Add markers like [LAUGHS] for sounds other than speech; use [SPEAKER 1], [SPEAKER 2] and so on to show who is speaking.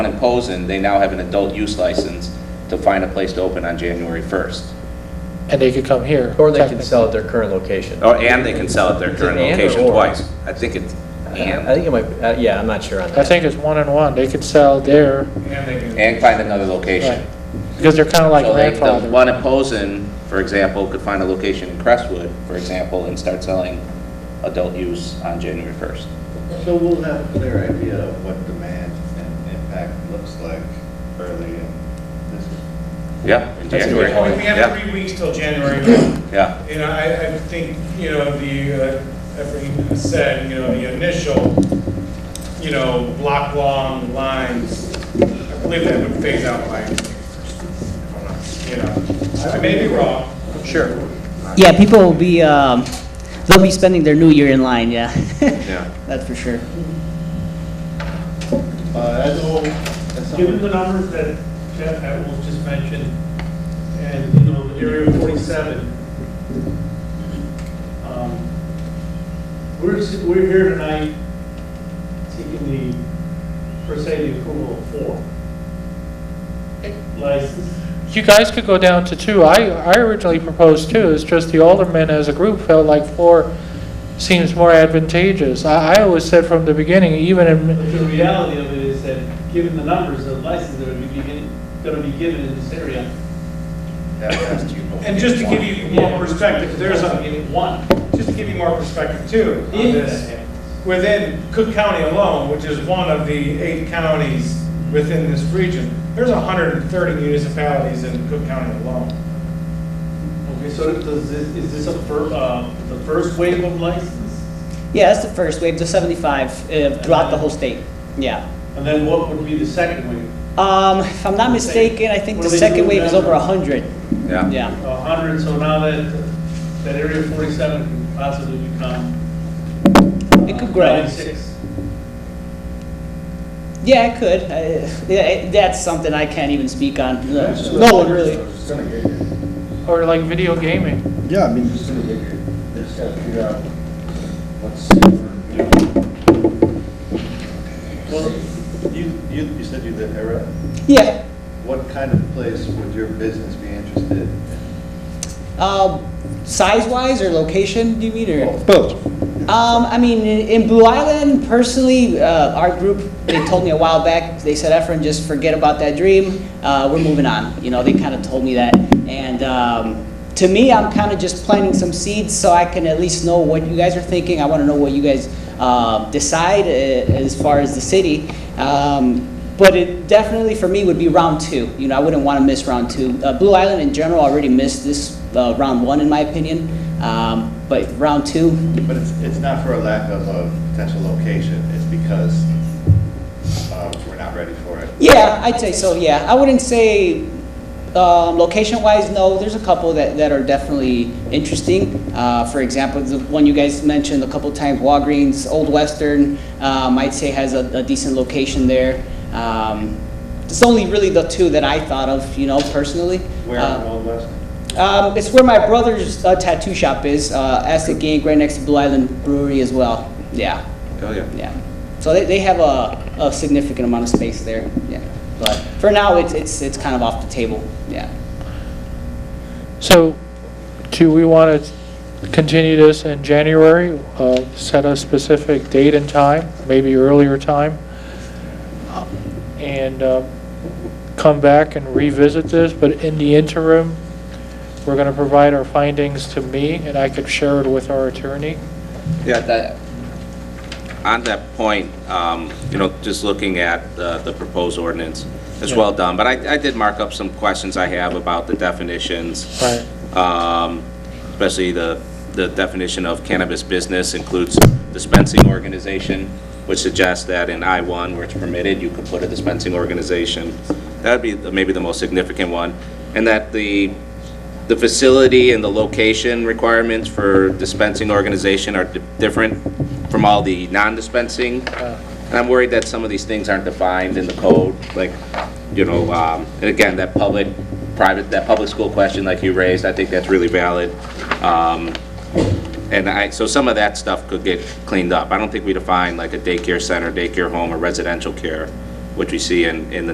[SPEAKER 1] in Posen, they now have an adult use license to find a place to open on January 1st.
[SPEAKER 2] And they could come here.
[SPEAKER 3] Or they can
[SPEAKER 2] technically.
[SPEAKER 3] sell at their current location.
[SPEAKER 1] Or, and they can sell at their current
[SPEAKER 3] Is it and or
[SPEAKER 1] location
[SPEAKER 3] or?
[SPEAKER 1] twice. I think it's
[SPEAKER 3] I
[SPEAKER 1] and,
[SPEAKER 3] think it might, uh, yeah, I'm not sure on that.
[SPEAKER 2] I think it's one and one. They could sell there,
[SPEAKER 1] and find another location.
[SPEAKER 2] right? Because they're kind of like
[SPEAKER 1] So they, the
[SPEAKER 2] grandfathered.
[SPEAKER 1] one in Posen, for example, could find a location in Crestwood, for example, and start selling adult use on January 1st.
[SPEAKER 4] So we'll have a clear idea of what demand and impact looks like early in this.
[SPEAKER 1] Yeah, in
[SPEAKER 3] That's a good
[SPEAKER 1] January.
[SPEAKER 5] Well, We have
[SPEAKER 1] Yeah,
[SPEAKER 5] three weeks till January,
[SPEAKER 1] yeah,
[SPEAKER 5] and I, I think, you know, the, uh, everything said, you know, the initial, you know, block-long lines, I believe that would phase out by, you know, I may be wrong.
[SPEAKER 3] Sure.
[SPEAKER 6] Yeah, people will be, um, they'll be spending their new year in line, yeah.
[SPEAKER 1] yeah.
[SPEAKER 6] [LAUGHS] That's for sure.
[SPEAKER 4] Uh, as a whole,
[SPEAKER 7] Given the numbers that Jeff Atwell just mentioned, and, you know, the area of 47, um, we're, s- we're here tonight seeking the, per se, the approval of four licenses.
[SPEAKER 2] You guys could go down to two. I, I originally proposed two. It's just the aldermen as a group felt like four seems more advantageous. I, I always said from the beginning, even in,
[SPEAKER 7] But the reality of it is that, given the numbers of licenses that are beginning, that are be given in this area,
[SPEAKER 4] that last you.
[SPEAKER 5] And just to give you more perspective, there's a,
[SPEAKER 7] One.
[SPEAKER 5] just to give you more perspective too, on
[SPEAKER 7] If
[SPEAKER 5] this.
[SPEAKER 7] that happens.
[SPEAKER 5] Within Cook County alone, which is one of the eight counties within this region, there's 130 municipalities in Cook County alone.
[SPEAKER 7] Okay, so does this, is this a fir, uh, the first wave of license?
[SPEAKER 6] Yeah, that's the first wave, the 75 uh, throughout the whole state, yeah.
[SPEAKER 7] And then what would be the second wave?
[SPEAKER 6] Um, if I'm not mistaken, I think
[SPEAKER 7] What
[SPEAKER 6] the
[SPEAKER 7] do they
[SPEAKER 6] second
[SPEAKER 7] do
[SPEAKER 6] wave is
[SPEAKER 7] now?
[SPEAKER 6] over 100, yeah.
[SPEAKER 7] A hundred, so now that, that area forty-seven could possibly become.
[SPEAKER 6] It could
[SPEAKER 7] uh,
[SPEAKER 6] grow.
[SPEAKER 7] Ninety-six.
[SPEAKER 6] Yeah, it could. Uh, yeah, it- That's something I can't even speak on. No no one really.
[SPEAKER 4] It's gonna get you.
[SPEAKER 2] or like video gaming.
[SPEAKER 4] Yeah, I mean. It's gonna get you, they just gotta figure out what's safer. Well, you, you, you said you live Everett.
[SPEAKER 6] Yeah,
[SPEAKER 4] What kind of place would your business be interested in?
[SPEAKER 6] Um, size-wise or location, do you mean, or?
[SPEAKER 8] Both.
[SPEAKER 6] Um, I mean, in in Blue Island, personally, uh, our group, they told me a while back, they said, Efren, just forget about that dream, uh, we're moving on. You know, they kind of told me that. And, um, to me, I'm kind of just planting some seeds so I can at least know what you guys are thinking. I want to know what you guys, uh, decide uh, as far as the city. Um, but it definitely, for me, would be round two. You know, I wouldn't want to miss round two. Uh, Blue Island in general already missed this, uh, round one, in my opinion. Um, but round two,
[SPEAKER 4] But it's, it's not for a lack of a potential location, it's because uh, we're not ready for it.
[SPEAKER 6] Yeah, I'd say so, yeah. I wouldn't say, um, location-wise, no, there's a couple that, that are definitely interesting. Uh, for example, the one you guys mentioned a couple times, Walgreens, Old Western, um, I'd say has a, a decent location there. Um, it's only really the two that I thought of, you know, personally.
[SPEAKER 4] Where
[SPEAKER 6] Uh,
[SPEAKER 4] in Old West?
[SPEAKER 6] Um, it's where my brother's uh, tattoo shop is, uh, Asset Gang, right next to Blue Island Brewery as well. Yeah,
[SPEAKER 1] Oh, yeah.
[SPEAKER 6] yeah. So they, they have a, a significant amount of space there, yeah. But for now, it's, it's, it's kind of off the table, yeah.
[SPEAKER 2] So, do we want to continue this in January? Uh, Set a specific date and time, maybe earlier time? And uh, come back and revisit this, but in the interim, we're going to provide our findings to me, and I could share it with our attorney.
[SPEAKER 1] Yeah, that, on that point, um, you know, just looking at the the proposed ordinance, it's well done, but I I did mark up some questions I have about the definitions.
[SPEAKER 2] Right.
[SPEAKER 1] Um, Especially the the definition of cannabis business includes dispensing organization, which suggests that in I-1, where it's permitted, you could put a dispensing organization. That'd be the- maybe the most significant one. And that the the facility and the location requirements for dispensing organization are di- different from all the non-dispensing. And I'm worried that some of these things aren't defined in the code, like, you know, um, and again, that public, private, that public school question like you raised, I think that's really valid. Um, And I, so some of that stuff could get cleaned up. I don't think we define like a daycare center, daycare home, or residential care. which we see in, in the